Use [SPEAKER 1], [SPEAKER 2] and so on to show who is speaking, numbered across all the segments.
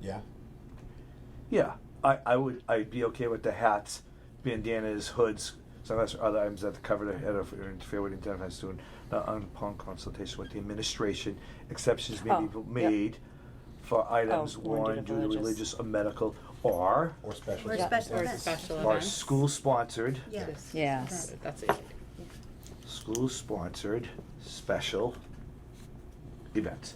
[SPEAKER 1] Yeah.
[SPEAKER 2] Yeah, I, I would I'd be okay with the hats, bandanas, hoods, sunglasses, or other items that the cover the head of or interfere with the intent of a student. Not upon consultation with the administration, exceptions may
[SPEAKER 3] Oh,
[SPEAKER 2] be
[SPEAKER 3] yep.
[SPEAKER 2] made for items
[SPEAKER 3] Oh, warranted
[SPEAKER 2] one
[SPEAKER 3] of
[SPEAKER 2] due to
[SPEAKER 3] religious.
[SPEAKER 2] religious or medical or
[SPEAKER 1] Or special.
[SPEAKER 4] Or
[SPEAKER 3] Yeah.
[SPEAKER 4] special
[SPEAKER 3] Or
[SPEAKER 4] events.
[SPEAKER 5] special
[SPEAKER 2] or
[SPEAKER 5] events.
[SPEAKER 2] school sponsored,
[SPEAKER 4] Yeah.
[SPEAKER 5] Yes.
[SPEAKER 3] Yes.
[SPEAKER 5] That's it.
[SPEAKER 2] school sponsored special events.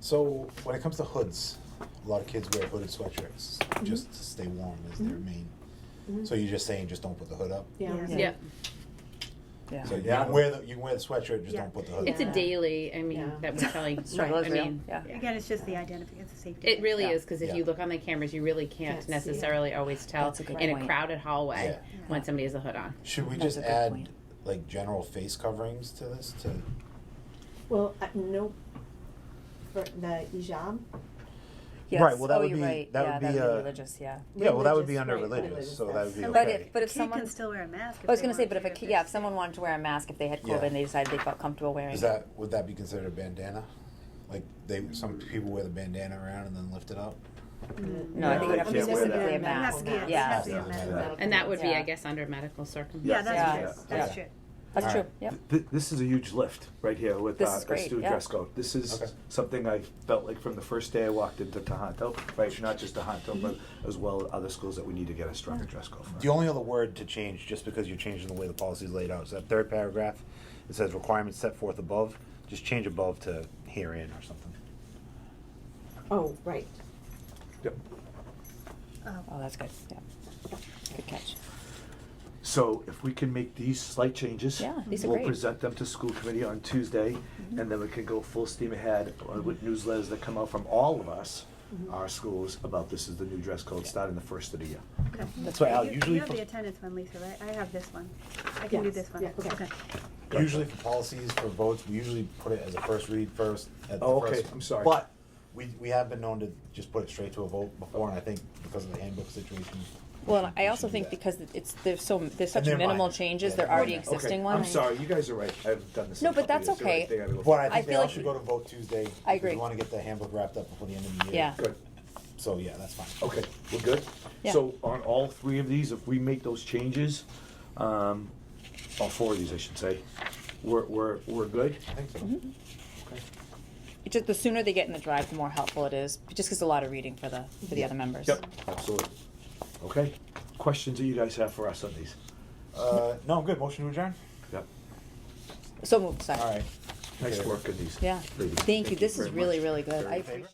[SPEAKER 1] So when it comes to hoods, a lot of kids wear hooded sweatshirts
[SPEAKER 4] Mm-hmm.
[SPEAKER 1] just to stay warm is their main. So you're just saying just don't put the hood up.
[SPEAKER 4] Yeah.
[SPEAKER 3] Yeah.
[SPEAKER 5] Yeah,
[SPEAKER 3] Yeah.
[SPEAKER 1] So you
[SPEAKER 2] Yeah.
[SPEAKER 1] can wear the you can wear the sweatshirt, just
[SPEAKER 4] Yeah.
[SPEAKER 1] don't put the hood.
[SPEAKER 5] it's a
[SPEAKER 1] up.
[SPEAKER 3] Yeah.
[SPEAKER 5] daily. I mean,
[SPEAKER 3] Yeah.
[SPEAKER 5] that we're telling.
[SPEAKER 3] Struggle
[SPEAKER 5] I
[SPEAKER 3] is real.
[SPEAKER 5] mean,
[SPEAKER 3] Yeah.
[SPEAKER 4] Again, it's just the identification, it's a safety.
[SPEAKER 5] It really
[SPEAKER 3] Yeah.
[SPEAKER 5] is because if
[SPEAKER 1] Yeah.
[SPEAKER 5] you look on the cameras, you really can't
[SPEAKER 3] Can't see it.
[SPEAKER 5] necessarily always tell
[SPEAKER 3] That's a good
[SPEAKER 5] in a
[SPEAKER 3] point.
[SPEAKER 5] crowded hallway
[SPEAKER 1] Yeah.
[SPEAKER 5] when somebody has a hood on.
[SPEAKER 1] Should we
[SPEAKER 3] That's
[SPEAKER 1] just
[SPEAKER 3] a good
[SPEAKER 1] add
[SPEAKER 3] point.
[SPEAKER 1] like general face coverings to this? To
[SPEAKER 6] Well, uh, no, for the ijab.
[SPEAKER 3] Yes.
[SPEAKER 2] Right, well, that
[SPEAKER 3] oh,
[SPEAKER 2] would
[SPEAKER 3] you're
[SPEAKER 2] be-
[SPEAKER 3] right.
[SPEAKER 2] that
[SPEAKER 3] yeah,
[SPEAKER 2] would
[SPEAKER 3] that
[SPEAKER 2] be,
[SPEAKER 3] would
[SPEAKER 2] uh,
[SPEAKER 3] be religious. Yeah.
[SPEAKER 2] Yeah, well, that would be under
[SPEAKER 6] right,
[SPEAKER 2] religious, so that would be
[SPEAKER 4] So-
[SPEAKER 3] But
[SPEAKER 2] okay.
[SPEAKER 3] if but if
[SPEAKER 4] Kid
[SPEAKER 3] someone
[SPEAKER 4] can still wear a mask. if
[SPEAKER 3] I was
[SPEAKER 4] they
[SPEAKER 3] going to say,
[SPEAKER 4] want
[SPEAKER 3] but if a
[SPEAKER 4] to,
[SPEAKER 3] kid, yeah, if
[SPEAKER 4] they're
[SPEAKER 3] someone wanted to wear a mask if they had COVID
[SPEAKER 1] Yeah.
[SPEAKER 3] and they decided they felt comfortable wearing
[SPEAKER 1] Is
[SPEAKER 3] it.
[SPEAKER 1] that would that be considered a bandana? Like they some people wear the bandana around and then lift it up.
[SPEAKER 3] No, I think
[SPEAKER 2] No,
[SPEAKER 3] it would have
[SPEAKER 2] they can't
[SPEAKER 3] to
[SPEAKER 2] wear that.
[SPEAKER 3] specifically a
[SPEAKER 6] It would
[SPEAKER 4] have
[SPEAKER 3] mask.
[SPEAKER 4] to be a- it
[SPEAKER 3] Yeah,
[SPEAKER 4] has to be a
[SPEAKER 1] Yeah.
[SPEAKER 4] mask.
[SPEAKER 2] Yeah.
[SPEAKER 5] And that would be,
[SPEAKER 3] Yeah.
[SPEAKER 5] I guess, under medical
[SPEAKER 4] Yeah,
[SPEAKER 5] circumstances.
[SPEAKER 3] Yeah.
[SPEAKER 4] that's true, that's
[SPEAKER 3] Yeah.
[SPEAKER 4] true.
[SPEAKER 3] that's
[SPEAKER 1] All
[SPEAKER 3] true.
[SPEAKER 1] right.
[SPEAKER 3] Yeah.
[SPEAKER 2] Th- this is a huge lift right here with
[SPEAKER 3] This
[SPEAKER 2] uh,
[SPEAKER 3] is great,
[SPEAKER 2] the student
[SPEAKER 3] yeah.
[SPEAKER 2] dress code. This is
[SPEAKER 1] Okay.
[SPEAKER 2] something I felt like from the first day I walked into Tohoto, right? Not just
[SPEAKER 3] Mm-hmm.
[SPEAKER 2] Tohoto, but as well other schools that we need to get a stronger dress code for.
[SPEAKER 1] The only other word to change, just because you're changing the way the policy is laid out, is that third paragraph. It says requirements set forth above. Just change above to herein or something.
[SPEAKER 6] Oh, right.
[SPEAKER 2] Yep.
[SPEAKER 3] Oh, that's good. Yeah. Good catch.
[SPEAKER 2] So if we can make these slight changes,
[SPEAKER 3] Yeah, these are
[SPEAKER 2] we'll
[SPEAKER 3] great. Mm-hmm.
[SPEAKER 2] present them to school committee on Tuesday, and then we can go full steam ahead uh, with newsletters that come out from all of us,
[SPEAKER 3] Mm-hmm.
[SPEAKER 2] our schools, about this is the new dress code starting the first of the year.
[SPEAKER 4] Okay.
[SPEAKER 1] That's why Al
[SPEAKER 4] You-
[SPEAKER 1] usually
[SPEAKER 4] You have
[SPEAKER 1] for-
[SPEAKER 4] the attendance one, Lisa, right? I have this one. I can do
[SPEAKER 6] Yes.
[SPEAKER 4] this one.
[SPEAKER 6] Yeah, okay.
[SPEAKER 2] Gotcha.
[SPEAKER 1] Usually for policies, for votes, we usually put it as a first read first. At the
[SPEAKER 2] Oh, okay,
[SPEAKER 1] first-
[SPEAKER 2] I'm sorry.
[SPEAKER 1] But we, we have been known to just put it straight to a vote before, and I think because of the handbook situation.
[SPEAKER 3] Well, and
[SPEAKER 1] we
[SPEAKER 3] I also
[SPEAKER 1] should do
[SPEAKER 3] think
[SPEAKER 1] that.
[SPEAKER 3] because it's there's so there's such
[SPEAKER 1] And they're
[SPEAKER 3] minimal
[SPEAKER 1] minor.
[SPEAKER 3] changes,
[SPEAKER 1] Yeah,
[SPEAKER 3] there
[SPEAKER 1] they're
[SPEAKER 3] are already
[SPEAKER 1] minor.
[SPEAKER 2] Okay,
[SPEAKER 3] existing ones.
[SPEAKER 2] I'm sorry, you guys are right. I haven't done this. in
[SPEAKER 3] No,
[SPEAKER 2] a
[SPEAKER 3] but
[SPEAKER 2] couple years.
[SPEAKER 3] that's
[SPEAKER 2] You're right.
[SPEAKER 3] okay.
[SPEAKER 2] They gotta go
[SPEAKER 1] But I
[SPEAKER 2] first.
[SPEAKER 3] I
[SPEAKER 1] think they
[SPEAKER 3] feel
[SPEAKER 1] all
[SPEAKER 3] like
[SPEAKER 1] should
[SPEAKER 3] we-
[SPEAKER 1] go to vote Tuesday.
[SPEAKER 3] I
[SPEAKER 1] because
[SPEAKER 3] agree.
[SPEAKER 1] We wanna get the handbook wrapped up before the end of the year.
[SPEAKER 3] Yeah.
[SPEAKER 2] Good.
[SPEAKER 1] So, yeah, that's fine.
[SPEAKER 2] Okay, we're good?
[SPEAKER 3] Yeah.
[SPEAKER 2] So on all three of these, if we make those changes, um, all four of these, I should say, we're, we're, we're good?
[SPEAKER 1] I think so.
[SPEAKER 3] Mm-hmm. It's just the sooner they get in the drive, the more helpful it is. Just because a lot of reading for the for the other members.
[SPEAKER 2] Yep, absolutely. Okay, questions that you guys have for us on these?
[SPEAKER 1] Uh, no, I'm good. Motion to adjourn?
[SPEAKER 2] Yep,
[SPEAKER 3] So moved. Sorry.
[SPEAKER 1] All right.
[SPEAKER 2] nice
[SPEAKER 1] Okay.
[SPEAKER 2] work on these.
[SPEAKER 3] Yeah.
[SPEAKER 2] ladies.
[SPEAKER 3] Thank you. This is
[SPEAKER 2] very
[SPEAKER 3] really
[SPEAKER 2] much.
[SPEAKER 3] really good.
[SPEAKER 2] Very
[SPEAKER 3] I
[SPEAKER 2] much.
[SPEAKER 3] appreciate.